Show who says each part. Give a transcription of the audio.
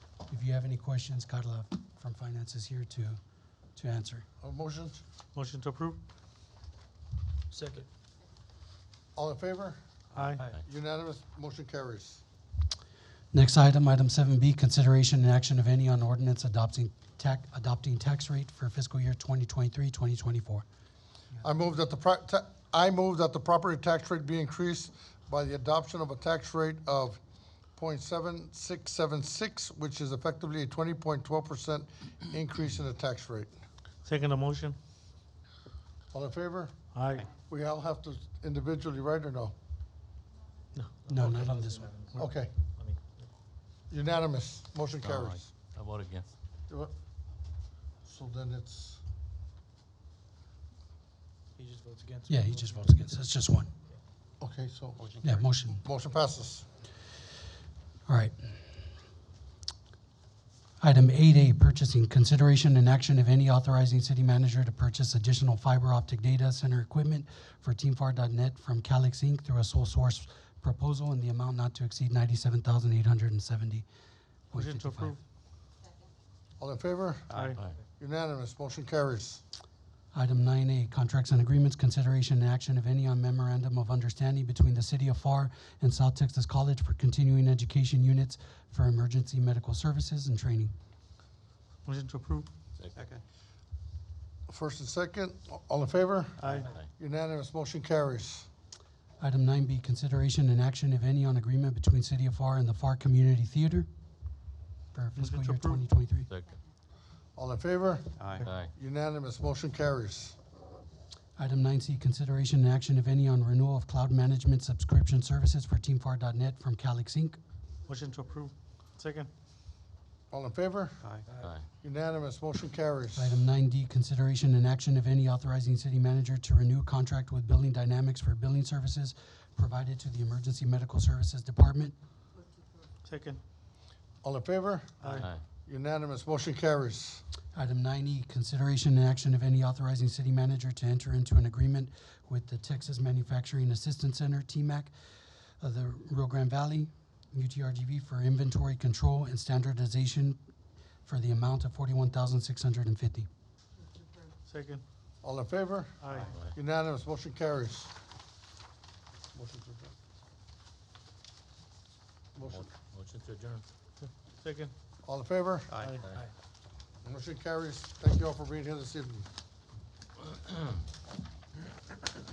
Speaker 1: if you have any questions, Carla from Finance is here to, to answer.
Speaker 2: Uh, Motions,
Speaker 3: Motion to approve?
Speaker 4: Second.
Speaker 2: all in favor?
Speaker 3: Aye.
Speaker 2: Unanimous, motion carries.
Speaker 1: Next item, item seven B, consideration and action of any on ordinance adopting tax, adopting tax rate for fiscal year 2023-2024.
Speaker 2: I move that the, pro- ta- I move that the property tax rate be increased by the adoption of a tax rate of 0.7676, which is effectively a twenty point twelve percent increase in the tax rate.
Speaker 3: Second the motion?
Speaker 2: All in favor?
Speaker 3: Aye.
Speaker 2: We all have to individually, right, or no?
Speaker 1: No, not on this one.
Speaker 2: Okay,
Speaker 4: I mean,
Speaker 2: unanimous, motion
Speaker 5: Mm-hmm. All right.
Speaker 2: carries.
Speaker 5: I vote against.
Speaker 2: Do it. So then it's,
Speaker 4: he just votes against.
Speaker 1: Yeah, he just votes against, it's just one.
Speaker 2: okay, so,
Speaker 1: Yeah, motion.
Speaker 2: motion passes.
Speaker 1: All right. Item eight A, purchasing, consideration and action of any authorizing city manager to purchase additional fiber optic data center equipment for teamfAR.net from Calix Inc. through a sole source proposal in the amount not to exceed ninety-seven thousand eight hundred and seventy point
Speaker 3: Motion to
Speaker 1: fifty-five.
Speaker 3: approve?
Speaker 2: All in favor?
Speaker 3: Aye.
Speaker 5: Aye.
Speaker 2: Unanimous, motion carries.
Speaker 1: Item nine A, contracts and agreements, consideration and action of any on memorandum of understanding between the City of FAR and South Texas College for continuing education units for emergency medical services and training.
Speaker 3: Motion to approve?
Speaker 4: Second.
Speaker 2: First and second, all in favor?
Speaker 3: Aye.
Speaker 2: Unanimous, motion carries.
Speaker 1: Item nine B, consideration and action, if any, on agreement between City of FAR and the FAR Community Theater for
Speaker 3: Motion
Speaker 1: fiscal
Speaker 3: to
Speaker 1: year
Speaker 3: approve.
Speaker 1: twenty twenty-three.
Speaker 5: Second.
Speaker 2: All in favor?
Speaker 5: Aye.
Speaker 2: Unanimous, motion carries.
Speaker 1: Item nine C, consideration and action, if any, on renewal of cloud management subscription services for teamfAR.net from Calix Inc.
Speaker 3: Motion to approve? Second?
Speaker 2: All in favor?
Speaker 5: Aye.
Speaker 2: Unanimous, motion carries.
Speaker 1: Item nine D, consideration and action, if any, authorizing city manager to renew contract with Billing Dynamics for billing services provided to the Emergency Medical Services Department.
Speaker 3: Second?
Speaker 2: All in favor?
Speaker 5: Aye.
Speaker 2: Unanimous, motion carries.
Speaker 1: Item nine E, consideration and action, if any, authorizing city manager to enter into an agreement with the Texas Manufacturing Assistance Center, TMAC, of the Rio Grande Valley, UTRGV, for inventory control and standardization for the amount of forty-one thousand six hundred and fifty.
Speaker 3: Second?
Speaker 2: All in favor?
Speaker 3: Aye.
Speaker 2: Unanimous, motion carries. Motion to adjourn. Motion,
Speaker 5: Motion to adjourn.
Speaker 3: Second?
Speaker 2: all in favor?
Speaker 3: Aye.
Speaker 5: Aye.
Speaker 2: Motion carries. Thank you all for being here this evening.